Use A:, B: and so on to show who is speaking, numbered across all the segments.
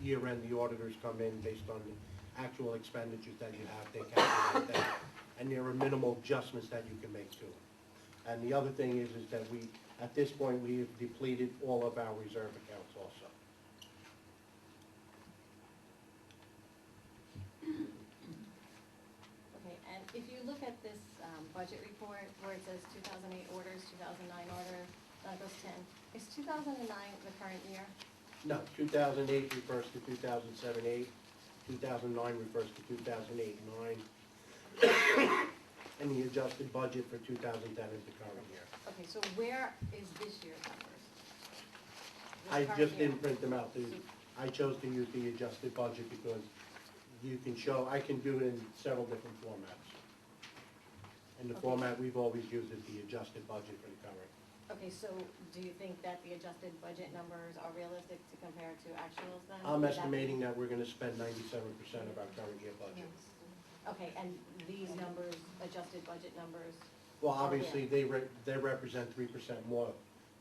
A: year end, uh, the auditors come in based on the actual expenditures that you have, they calculate that. And there are minimal adjustments that you can make to it. And the other thing is, is that we, at this point, we have depleted all of our reserve accounts also.
B: Okay, and if you look at this um, budget report where it says 2008 orders, 2009 order, Douglas 10, is 2009 the current year?
A: No, two thousand eight refers to two thousand seven, eight, two thousand nine refers to two thousand eight, nine. And the adjusted budget for two thousand ten is the current year.
B: Okay, so where is this year's numbers? This
A: I
B: current
A: just
B: year.
A: didn't print them out, The- I chose to use the adjusted budget because you can show, I can do it in several different formats. And the
B: Okay.
A: format we've always used is the adjusted budget for the current.
B: Okay, so do you think that the adjusted budget numbers are realistic to compare to actuals then?
A: I'm
B: Would that be-
A: estimating that we're gonna spend ninety-seven percent of our current year budget.
B: Okay, and these numbers, adjusted budget numbers,
A: Well, obviously, they re, they represent three percent more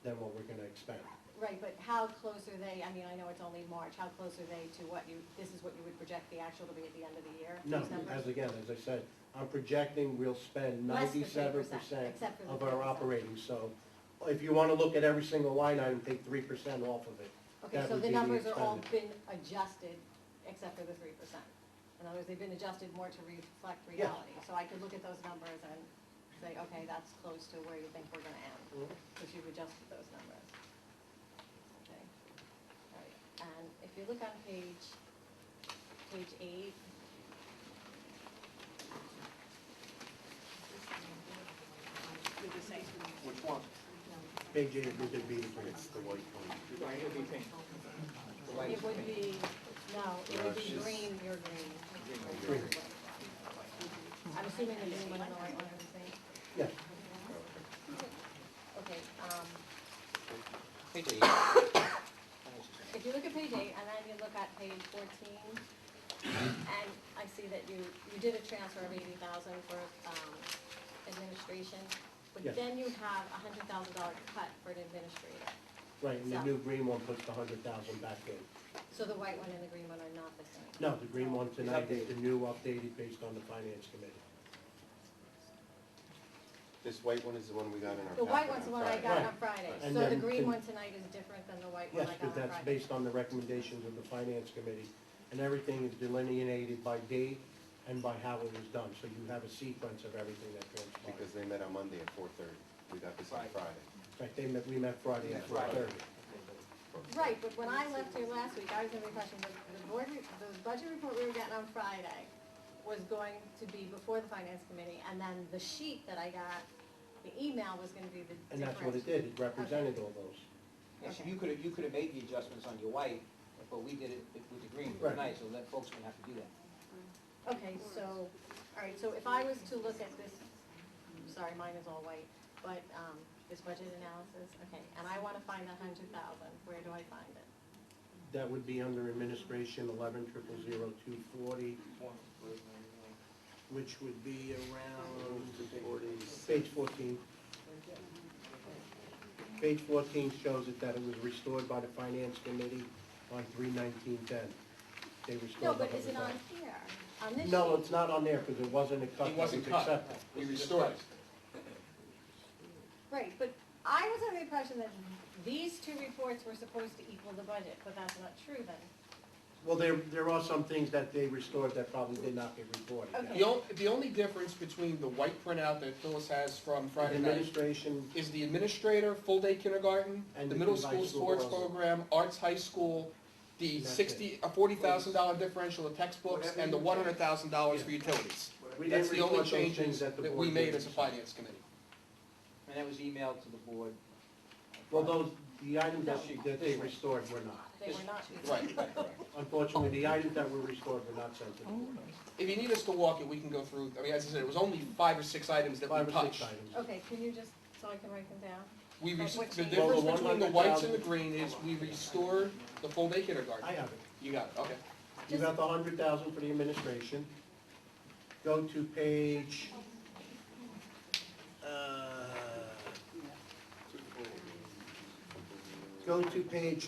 A: than what we're gonna expend.
B: right, but how close are they, I mean, I know it's only March, how close are they to what you, this is what you would project the actual to be at the end of the year?
A: No,
B: these numbers?
A: as again, as I said, I'm projecting we'll spend
B: Less than
A: ninety-seven
B: 3%,
A: percent
B: except for the
A: of our
B: 3%.
A: operating, so if you wanna look at every single line item, take three percent off of it.
B: Okay,
A: That
B: so
A: would
B: the
A: be the
B: numbers are all
A: expended.
B: been adjusted except for the three percent. In other words, they've been adjusted more to reflect
A: Yes.
B: reality. So I could look at those numbers and say, okay, that's close to where you think we're gonna end,
A: Mm-hmm.
B: because you've adjusted those numbers. Okay, all right. And if you look on page, page eight.
C: Which one?
A: Page eight would be the, the white one.
C: Right, it'll be pink. The light
B: It
C: is
B: would be,
C: pink.
B: no, it would be
D: She's-
B: green, you're green.
A: Green.
B: I'm assuming the green one's the right one, I'm saying.
A: Yeah,
B: Okay, um,
C: Pink is- Oh, it's the same.
B: if you look at page eight, and then you look at page fourteen, and I see that you, you did a transfer of eighty thousand for, um, administration, but
A: Yes.
B: then you have a hundred thousand dollar cut for an administrator.
A: right, and the
B: So-
A: new green one puts the hundred thousand back in.
B: So the white one and the green one are not the same.
A: No, the green one tonight is
C: updated.
A: the new updated based on the finance committee.
D: This white one is the one we got in our.
B: The white
D: packet
B: one's the
D: on
B: one I got on
A: Right.
B: Friday,
A: And
B: so the
A: then
B: green
A: can-
B: one tonight is different than the white one
A: Yes,
B: I got
A: because
B: on
A: that's
B: Friday.
A: based on the recommendations of the finance committee, and everything is delineated by date and by how it was done, so you have a sequence of everything that
D: Friday,
A: transpired.
D: Because they met on Monday at four thirty, we got this on
C: Right.
D: Friday.
A: In fact, they met, we met Friday at
C: That's
A: four
C: right.
A: thirty.
B: Right, but when I left here last week, I was under the impression that the board, re- the budget report we were getting on Friday was going to be before the finance committee, and then the sheet that I got, the email was gonna be the difference.
A: And that's what it did, it represented all those.
C: Yeah, so
B: Okay.
C: you could have, you could have made the adjustments on your white, but we did it with the green for
A: Right.
C: tonight, so that folks wouldn't have to do that.
B: Okay, so, all right, so if I was to look at this, sorry, mine is all white, but, um, this budget analysis, okay, and I wanna find a hundred thousand, where do I find it?
A: That would be under administration eleven triple zero two forty, which would be around page fourteen. Page fourteen shows it that it was restored by the finance committee on three nineteen ten. They restored
B: No,
A: the
B: but is it on
A: 100,000.
B: here, on this sheet?
A: No, it's not on there because it wasn't a cut.
E: It
A: that
E: wasn't
A: was
E: cut.
A: accepted.
E: We restored it.
B: Right, but I was under the impression that these two reports were supposed to equal the budget, but that's not true then.
A: Well, there, there are some things that they restored that probably did not get reported.
B: Okay.
E: The only, the only difference between the white printout that Phyllis has from Friday night
A: Administration,
E: is the administrator, full-day kindergarten,
A: And
E: the
A: the
E: middle
A: high
E: school
A: school
E: sports
A: program.
E: program, arts high school, the
A: That's
E: sixty, a forty thousand dollar differential in textbooks,
F: Whatever
E: and the
F: you
E: one hundred thousand dollars
A: Yeah.
E: for utilities.
A: we
E: That's
A: didn't
E: the only
A: report those
E: changes
A: things that the
E: that we
A: board
E: made
A: did.
E: as a finance committee.
C: And that was emailed to the board. on
A: Well,
C: Friday.
A: those, the items that, that they restored were not.
B: They were not equal.
E: Right, right, right.
A: Unfortunately, the items that were restored were not sent to the board.
E: If you need us to walk it, we can go through, I mean, as I said, it was only five or six items that we
A: Five
E: touched.
A: or six items.
B: Okay, can you just, so I can write them down?
E: We,
B: Like
E: res-
B: what
E: the
B: change?
E: difference
A: Well, the
E: between the whites and the
A: 100,000
E: green is we restored the full-day kindergarten.
A: I have it.
E: You got it, okay.
A: You got the hundred thousand for the administration. Go to page, uh, go to page